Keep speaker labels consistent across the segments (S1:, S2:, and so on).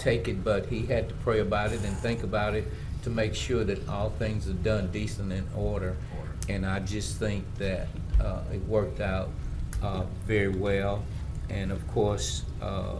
S1: take it, but he had to pray about it and think about it to make sure that all things are done decent and order. And I just think that uh, it worked out uh, very well. And of course, uh,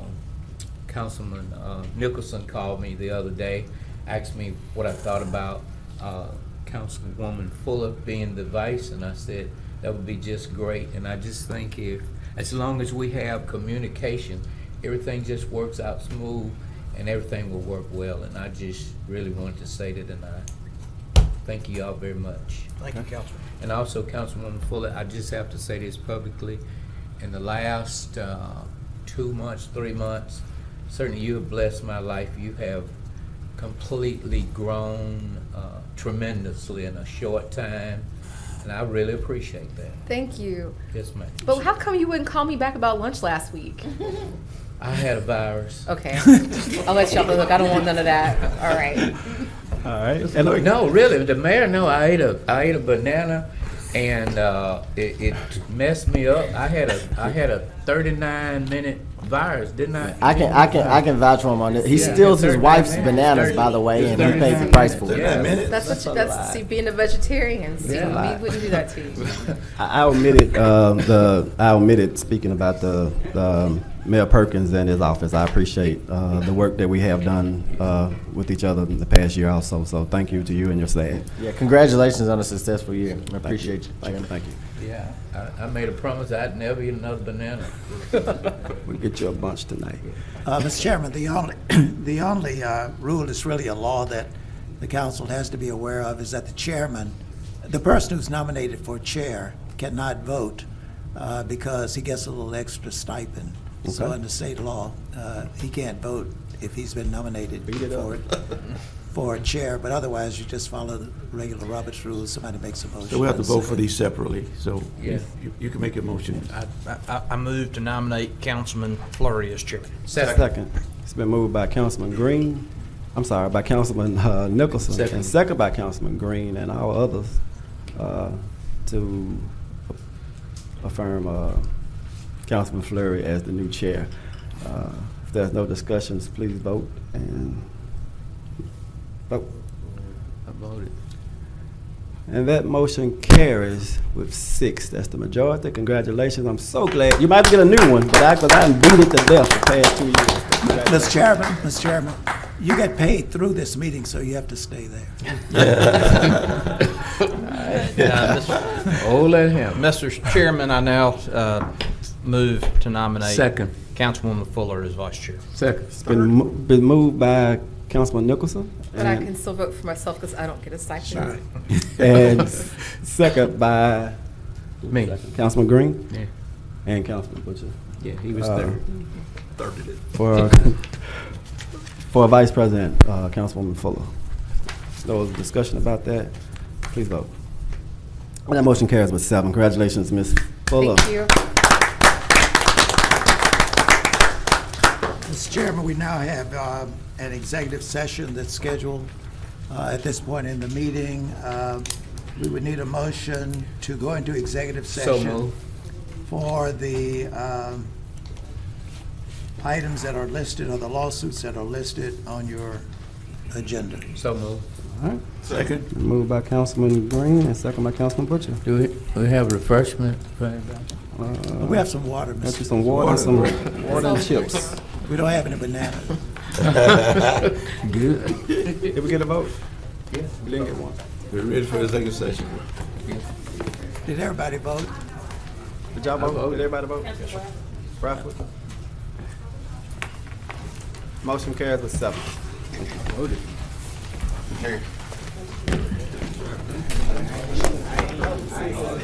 S1: Councilman uh, Nicholson called me the other day, asked me what I thought about uh, Councilwoman Fuller being the vice, and I said that would be just great. And I just think if, as long as we have communication, everything just works out smooth and everything will work well. And I just really wanted to say that, and I thank you all very much.
S2: Thank you, Councilman.
S1: And also, Councilwoman Fuller, I just have to say this publicly. In the last uh, two months, three months, certainly you have blessed my life. You have completely grown uh, tremendously in a short time, and I really appreciate that.
S3: Thank you.
S1: Yes, ma'am.
S3: But how come you wouldn't call me back about lunch last week?
S1: I had a virus.
S3: Okay. I'll let y'all know. Look, I don't want none of that. All right.
S4: All right. And look,
S1: No, really, the mayor, no, I ate a, I ate a banana and, uh, it, it messed me up. I had a, I had a thirty-nine minute virus, didn't I?
S5: I can I can I can vouch for him on this. He
S1: Yeah.
S5: steals his
S1: Thirty-nine
S5: wife's
S1: minutes.
S5: bananas, by the way, and he pays the price for
S1: Yeah.
S5: it.
S3: That's what you, that's see being a vegetarian. See,
S1: Yeah.
S3: we wouldn't do that to you.
S6: I I omitted uh, the, I omitted speaking about the um, Mayor Perkins and his office. I appreciate uh, the work that we have done uh, with each other in the past year also. So thank you to you and your staff.
S5: Yeah, congratulations on a successful year. I appreciate you,
S6: Thank you,
S5: Chairman.
S6: thank you.
S1: Yeah, I, I made a promise I'd never eat another banana.
S6: We'll get you a bunch tonight.
S2: Uh, Mr. Chairman, the only, the only uh, rule that's really a law that the council has to be aware of is that the chairman, the person who's nominated for chair cannot vote uh, because he gets a little extra stipend. So
S6: Okay.
S2: under state law, uh, he can't vote if he's been nominated
S6: Beat it
S2: for,
S6: up.
S2: for a chair. But otherwise, you just follow the regular Roberts rules, somebody makes a motion.
S7: So we have to
S2: and
S7: vote
S2: second.
S7: for these separately, so
S1: Yeah.
S7: you you can make your motion.
S8: I, I, I move to nominate Councilman Flurry as chairman.
S1: Second.
S6: Second, it's been moved by Councilman Green, I'm sorry, by Councilman uh, Nicholson,
S1: Second.
S6: and second by Councilman Green and all others uh, to affirm uh, Councilman Fleury as the new chair. Uh, If there's no discussions, please vote and vote.
S1: I voted.
S6: And that motion carries with six. That's the majority. Congratulations. I'm so glad. You might get a new one, but I, because I done beat it to death the past two years.
S2: Mr. Chairman, Mr. Chairman, you get paid through this meeting, so you have to stay there.
S1: Oh, let him.
S8: Mr. Chairman, I now uh, move to nominate
S1: Second.
S8: Councilwoman Fuller as vice chair.
S1: Second.
S6: It's been, mo- been moved by Councilman Nicholson.
S3: But I
S6: and-
S3: can still vote for myself because I don't get a stipend.
S6: And s- second by
S1: Me.
S6: Councilman Green
S1: Yeah.
S6: and Councilman Butcher.
S1: Yeah, he was
S6: Uh,
S1: third.
S6: For, for Vice President, uh, Councilwoman Fuller. No discussion about that. Please vote. And that motion carries with seven. Congratulations, Ms. Fuller.
S3: Thank you.
S2: Mr. Chairman, we now have um, an executive session that's scheduled uh, at this point in the meeting. Uh, We would need a motion to go into executive
S1: So
S2: session
S1: moved.
S2: for the um, items that are listed or the lawsuits that are listed on your agenda.
S1: So moved.
S7: Second.
S6: Moved by Councilman Green and second by Councilman Butcher.
S1: Do we, we have refreshment for anybody?
S2: We have some water,
S6: Got
S2: Mr.
S6: you some water, some water and chips.
S2: We don't have any bananas.
S1: Good.
S6: Did we get a vote? Yeah. We didn't get one.
S7: We're ready for the second session.
S2: Did everybody vote?
S6: Did y'all vote? Did everybody vote? Bradford? Motion carries with seven.